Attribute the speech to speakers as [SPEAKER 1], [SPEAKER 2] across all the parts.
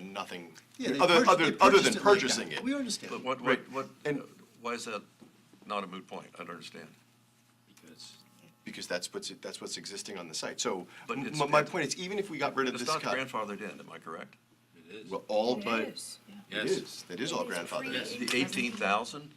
[SPEAKER 1] nothing,
[SPEAKER 2] Yeah, they
[SPEAKER 1] other,
[SPEAKER 2] purchased-
[SPEAKER 1] other,
[SPEAKER 2] they
[SPEAKER 1] other than
[SPEAKER 2] purchased it like that.
[SPEAKER 1] purchasing it.
[SPEAKER 2] We understand.
[SPEAKER 3] But what, what,
[SPEAKER 1] Right.
[SPEAKER 3] what,
[SPEAKER 1] And-
[SPEAKER 3] why is that not a moot point? I don't understand.
[SPEAKER 1] Because that's what's, that's what's existing on the site. So
[SPEAKER 3] But
[SPEAKER 1] m-
[SPEAKER 3] it's-
[SPEAKER 1] my, my point is, even if we got rid of
[SPEAKER 3] It's
[SPEAKER 1] this
[SPEAKER 3] not
[SPEAKER 1] cut,
[SPEAKER 3] grandfathered in, am I correct?
[SPEAKER 1] well, all
[SPEAKER 4] It
[SPEAKER 1] but.
[SPEAKER 4] is.
[SPEAKER 1] It is, that is all grandfathered in.
[SPEAKER 4] Yes.
[SPEAKER 3] The eighteen thousand,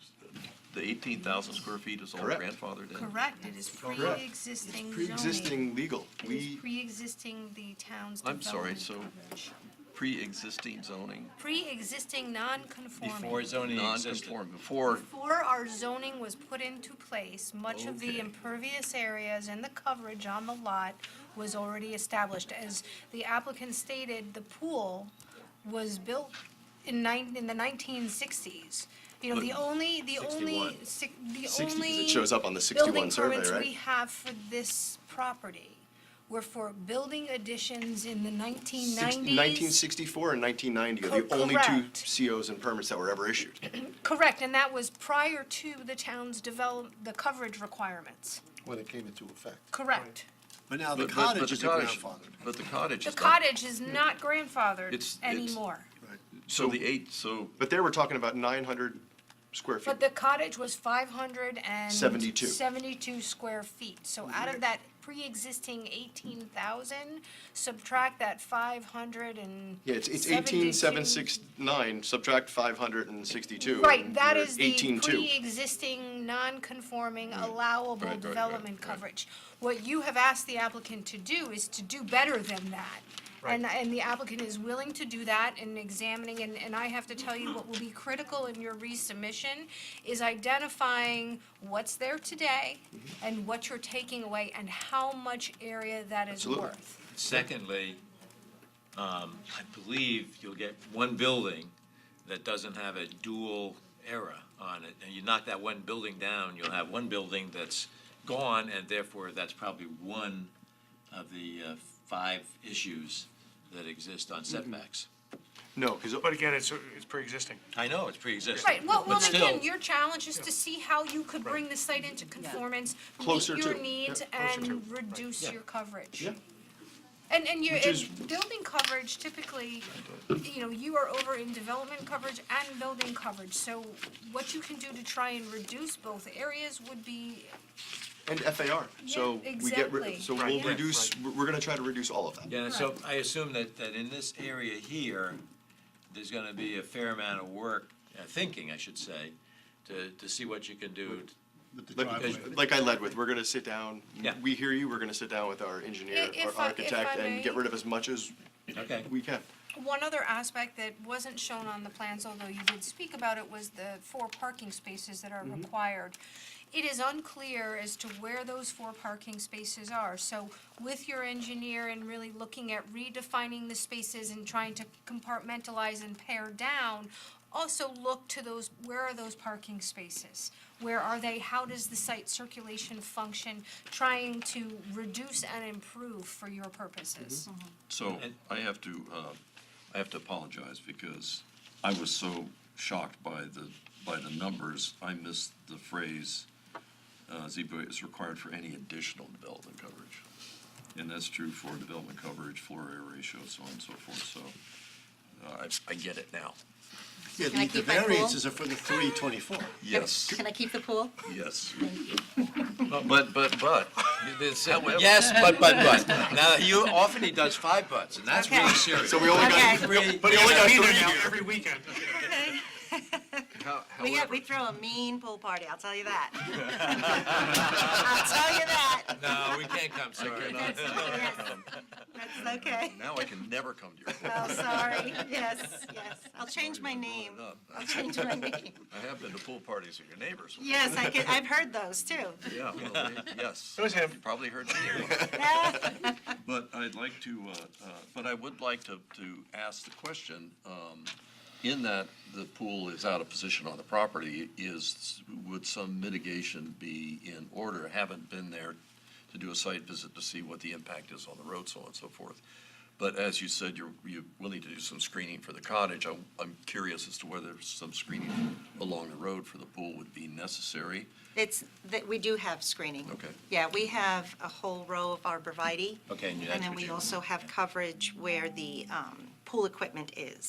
[SPEAKER 3] the eighteen thousand square feet is all
[SPEAKER 1] Correct.
[SPEAKER 3] grandfathered in?
[SPEAKER 5] Correct, it is
[SPEAKER 1] It's
[SPEAKER 5] pre-existing zoning.
[SPEAKER 1] pre-existing legal.
[SPEAKER 5] It is
[SPEAKER 1] We,
[SPEAKER 5] pre-existing the town's
[SPEAKER 3] I'm
[SPEAKER 5] development.
[SPEAKER 3] sorry, so
[SPEAKER 5] coverage.
[SPEAKER 3] pre-existing zoning,
[SPEAKER 5] Pre-existing non-conforming.
[SPEAKER 6] Before zoning existed.
[SPEAKER 3] non-conform, before,
[SPEAKER 5] Before our zoning was put into place, much of the
[SPEAKER 3] Okay.
[SPEAKER 5] impervious areas and the coverage on the lot was already established. As the applicant stated, the pool was built in nine, in the nineteen sixties. You know, the only, the only,
[SPEAKER 1] 61.
[SPEAKER 5] si- the only.
[SPEAKER 1] 60, 'cause it shows up on the 61 survey,
[SPEAKER 5] Building
[SPEAKER 1] right?
[SPEAKER 5] permits we have for this property were for building additions in the nineteen
[SPEAKER 1] six-
[SPEAKER 5] nineties.
[SPEAKER 1] 1964 and 1990 are the
[SPEAKER 5] Co-
[SPEAKER 1] only
[SPEAKER 5] correct.
[SPEAKER 1] two COs and permits that were ever issued.
[SPEAKER 5] Correct, and that was prior to the town's develop, the coverage requirements.
[SPEAKER 7] when it came into effect.
[SPEAKER 5] Correct.
[SPEAKER 2] But now the
[SPEAKER 3] but, but but
[SPEAKER 2] cottage
[SPEAKER 3] the
[SPEAKER 2] is
[SPEAKER 3] cottage,
[SPEAKER 2] grandfathered.
[SPEAKER 3] but the cottage
[SPEAKER 5] The
[SPEAKER 3] is not.
[SPEAKER 5] cottage is not
[SPEAKER 3] It's-
[SPEAKER 5] grandfathered
[SPEAKER 3] it's-
[SPEAKER 5] anymore.
[SPEAKER 3] So the eight, so,
[SPEAKER 1] But there, we're talking about 900 square feet.
[SPEAKER 5] But the cottage was five hundred and seventy
[SPEAKER 1] Seventy-two. Mm-hmm.
[SPEAKER 5] two square feet. So out of that pre-existing eighteen thousand, subtract that five hundred and
[SPEAKER 1] Yeah, it's, it's
[SPEAKER 5] 72.
[SPEAKER 1] 18,769, subtract 562.
[SPEAKER 5] Right,
[SPEAKER 1] and
[SPEAKER 5] that
[SPEAKER 1] you're
[SPEAKER 5] is the
[SPEAKER 1] 18,200.
[SPEAKER 5] pre-existing, non-conforming, allowable
[SPEAKER 3] Right, right, right,
[SPEAKER 5] development
[SPEAKER 3] right.
[SPEAKER 5] coverage. What you have asked the applicant to do is to do better than that. And, and the applicant is willing to do that in examining, and, and I have to tell you, what will be critical in your resubmission is identifying what's there today
[SPEAKER 3] Mm-hmm.
[SPEAKER 5] and what you're taking away and how much area that is
[SPEAKER 1] Absolutely.
[SPEAKER 5] worth.
[SPEAKER 6] Secondly, um, I believe you'll get one building that doesn't have a dual era on it. And you knock that one building down, you'll have one building that's gone, and therefore that's probably one of the uh, five issues that exist on setbacks.
[SPEAKER 1] No, oh, because
[SPEAKER 8] But again, it's, it's pre-existing.
[SPEAKER 6] I know, it's pre-existing.
[SPEAKER 5] Right, well,
[SPEAKER 6] but
[SPEAKER 5] well, again,
[SPEAKER 6] still-
[SPEAKER 5] your challenge is to see how you could bring the site into conformance, meet
[SPEAKER 1] Closer
[SPEAKER 5] your
[SPEAKER 1] to,
[SPEAKER 5] needs,
[SPEAKER 1] yeah, closer to,
[SPEAKER 5] and
[SPEAKER 1] right.
[SPEAKER 5] reduce
[SPEAKER 6] Yeah.
[SPEAKER 5] your coverage.
[SPEAKER 1] Yeah.
[SPEAKER 5] And, and you,
[SPEAKER 1] Which is-
[SPEAKER 5] and building coverage typically, you know, you are over in development coverage and building coverage, so what you can do to try and reduce both areas would be,
[SPEAKER 1] And FAR, so
[SPEAKER 5] Yeah,
[SPEAKER 1] we get, rid-
[SPEAKER 5] exactly.
[SPEAKER 1] so
[SPEAKER 8] Right,
[SPEAKER 1] we'll
[SPEAKER 8] yeah.
[SPEAKER 1] reduce, we're we're gonna try to reduce all of that.
[SPEAKER 6] Yeah, so I assume that, that in this area here, there's gonna be a fair amount of work, uh, thinking, I should say, to, to see what you can do.
[SPEAKER 7] With the driveway.
[SPEAKER 1] Like, like I led with, we're gonna sit down,
[SPEAKER 6] Yeah.
[SPEAKER 1] we hear you, we're gonna sit down with our
[SPEAKER 5] I-
[SPEAKER 1] engineer,
[SPEAKER 5] if I- if
[SPEAKER 1] our architect,
[SPEAKER 5] I
[SPEAKER 1] and get
[SPEAKER 5] may-
[SPEAKER 1] rid of as much as
[SPEAKER 6] Okay.
[SPEAKER 1] we can.
[SPEAKER 5] One other aspect that wasn't shown on the plans, although you did speak about it, was the four parking spaces that are required. It is unclear as to where those four parking spaces are, so with your engineer and really looking at redefining the spaces and trying to compartmentalize and pare down, also look to those, where are those parking spaces? Where are they? How does the site circulation function? Trying to reduce and improve for your purposes.
[SPEAKER 3] so I have to, uh, I have to apologize because I was so shocked by the, by the numbers, I missed the phrase, uh, ZBA is required for any additional development coverage. And that's true for development coverage, floor area ratio, so on and so forth, so, uh, I, I get it now.
[SPEAKER 2] Yeah,
[SPEAKER 4] Can I
[SPEAKER 2] the- the
[SPEAKER 4] keep my pool?
[SPEAKER 2] variances are for the three twenty-four.
[SPEAKER 3] Yes,
[SPEAKER 4] Can I keep the pool?
[SPEAKER 3] yes. But, but, but,
[SPEAKER 6] Yes, but, but, but. Now, you, often he does five buts, and that's really
[SPEAKER 4] Okay.
[SPEAKER 6] serious.
[SPEAKER 1] So we only got,
[SPEAKER 4] Okay.
[SPEAKER 6] Really-
[SPEAKER 1] but he only got
[SPEAKER 8] Be
[SPEAKER 1] three
[SPEAKER 8] there now
[SPEAKER 1] here.
[SPEAKER 8] every weekend.
[SPEAKER 3] how-
[SPEAKER 4] We
[SPEAKER 3] however-
[SPEAKER 4] have, we throw a mean pool party, I'll tell you that. I'll tell you that.
[SPEAKER 6] No, we can't come, sorry.
[SPEAKER 4] That's, yes, that's okay.
[SPEAKER 3] Now I can never come to your
[SPEAKER 4] Oh, sorry, yes, yes. I'll change my name. I'll change my name.
[SPEAKER 3] I have been to pool parties at your neighbors.
[SPEAKER 4] Yes, I could, I've heard those too.
[SPEAKER 3] Yeah, well, they- yes.
[SPEAKER 8] It was him.
[SPEAKER 3] You probably heard me. But I'd like to, uh, uh, but I would like to, to ask the question, um, in that the pool is out of position on the property, is, would some mitigation be in order? Haven't been there to do a site visit to see what the impact is on the road, so on and so forth. But as you said, you're, you're willing to do some screening for the cottage. I'm, I'm curious as to whether some screening along the road for the pool would be necessary.
[SPEAKER 4] It's, that, we do have screening.
[SPEAKER 3] Okay.
[SPEAKER 4] Yeah, we have a whole row of arborvitae.
[SPEAKER 6] Okay, and that's
[SPEAKER 4] And then
[SPEAKER 6] what
[SPEAKER 4] we
[SPEAKER 6] you-
[SPEAKER 4] also have coverage where the um, pool equipment is.